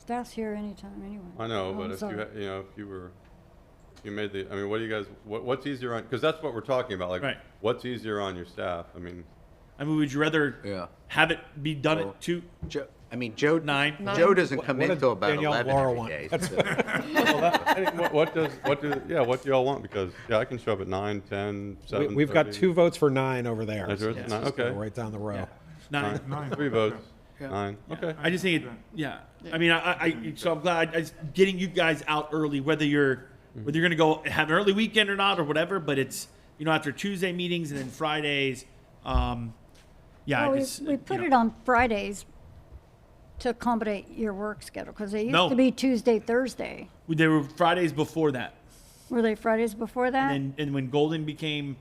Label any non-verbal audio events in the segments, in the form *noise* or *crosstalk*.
Staff's here anytime, anyway. I know, Oh, but I'm if you, sorry. had- you know, if you were, if you made the, I mean, what do you guys, what, what's easier on, because that's what we're talking about, like, Right. what's easier on your staff? I *laughs* mean, I mean, would you rather Yeah. have it be done Well- at two? Joe, I mean, Joe, Nine. Joe doesn't come What in did till about Danielle 11 Laura every want? day, That's- so- any- what, what does, what do, yeah, what do y'all want? Because, yeah, I can show up at nine, ten, We- seven. We've got 7:30. two votes for nine over there. Is there- It's nine, just go okay. Right down the row. Nine. Nine, *laughs* three votes, Yeah. nine, okay. I just think it. Yeah. I mean, I, I- I so I'm glad I, it's getting you guys out early, whether you're whether you're gonna go have an early weekend or not or whatever. But it's you know after Tuesday meetings and then Fridays. Um, yeah, Well, I we, just, we you put know. it on Fridays to accommodate your work schedule, because they No. used to be Tuesday, Thursday. There were Fridays before that, Were they Fridays before that? and and when Golden became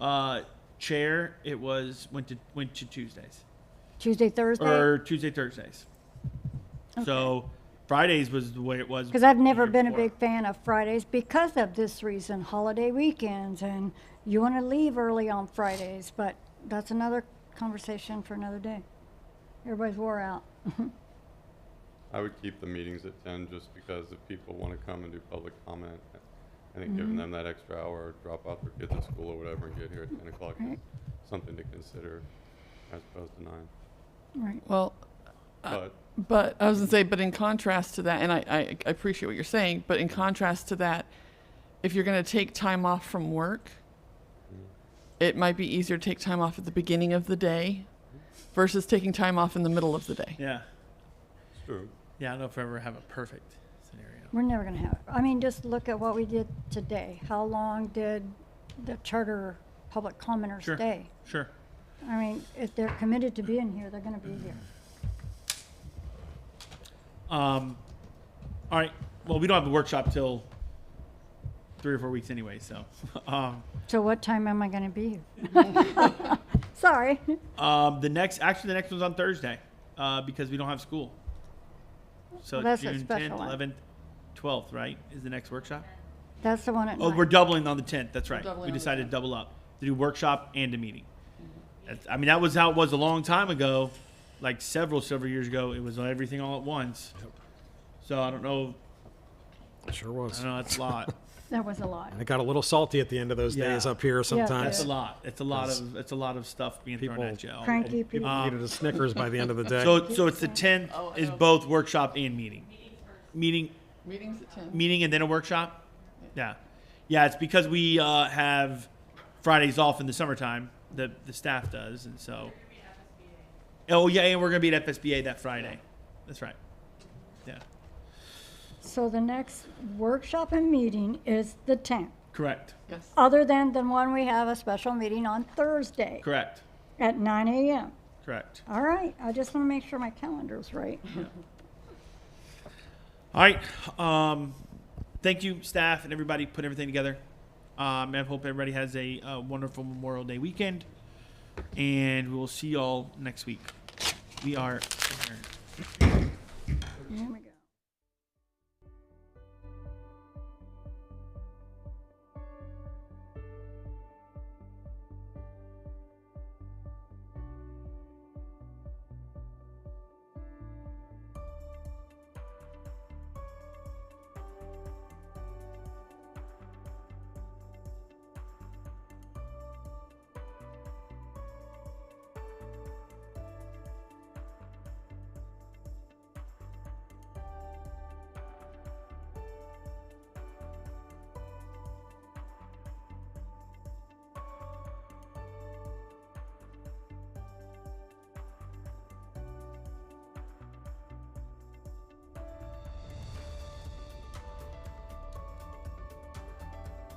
uh, chair, it was went to went to Tuesdays Tuesday, Thursday? or Tuesday Thursdays. So Fridays was the way it was. Because I've the never year been a before. big fan of Fridays because of this reason, holiday weekends, and you want to leave early on Fridays, but that's another conversation for another day. Everybody's wore out. I would keep the meetings at ten, just because if people wanna come and do public comment, I think Mm-hmm. giving them that extra hour, drop off their kids at school or whatever, and get here at ten o'clock is Right. something to consider, as opposed to nine, Right. Well, Uh, but. but I was gonna say, but in contrast to that, and I, I I appreciate what you're saying, but in contrast to that, if you're gonna take time off from work, it might be easier to take time off at the beginning of the day versus taking time off in the middle of the day. Yeah, It's true. yeah. I don't know if I ever have a perfect scenario. We're never gonna have it. I mean, just look at what we did today. How long did the charter public commenters Sure. stay? Sure. I mean, if they're committed to being here, they're gonna be here. Um, all right. Well, we don't have the workshop till three or four weeks anyway, so. *laughs* Um, So what time am I gonna be here? Sorry. um, the next, actually, the next one's on Thursday uh, because we don't have school. So Well, that's a June special 10th, one. 11th, 12th, right? Is the next workshop? That's the one at Oh, we're night. doubling on the 10th. That's right. doubling We on the decided to double up to do workshop and a meeting. Mm-hmm. That's, I mean, that was how it was a long time ago, like several, several years ago. It was everything all at once. So I don't know. Sure I was. don't know. That's a lot. That was a lot. And it got a little salty at the end of those Yeah. days up here That's a sometimes. lot. It's a lot of. It's a lot of stuff being thrown People- at you. all day. Cranky people. People needed a Snickers by the end of the day. So, so it's the tenth Oh, is both workshop and meeting. Meeting, Meetings at ten. meeting and then a workshop? Yeah. Yeah, it's because we, uh, have Fridays off in the summertime, the, the staff does, and so. Oh, yeah, and we're gonna be at FSBA that Friday. That's right. Yeah, So the next workshop and meeting is the tenth, correct, Yes. other than the one we have a special meeting on Thursday correct, at nine AM. correct. All right, I just wanna make sure my calendar's right. All right. Um, thank you, staff and everybody, put everything together. Um, and I hope everybody has a, uh wonderful Memorial Day weekend, and we will see y'all next week. We are adjourned. Here we go.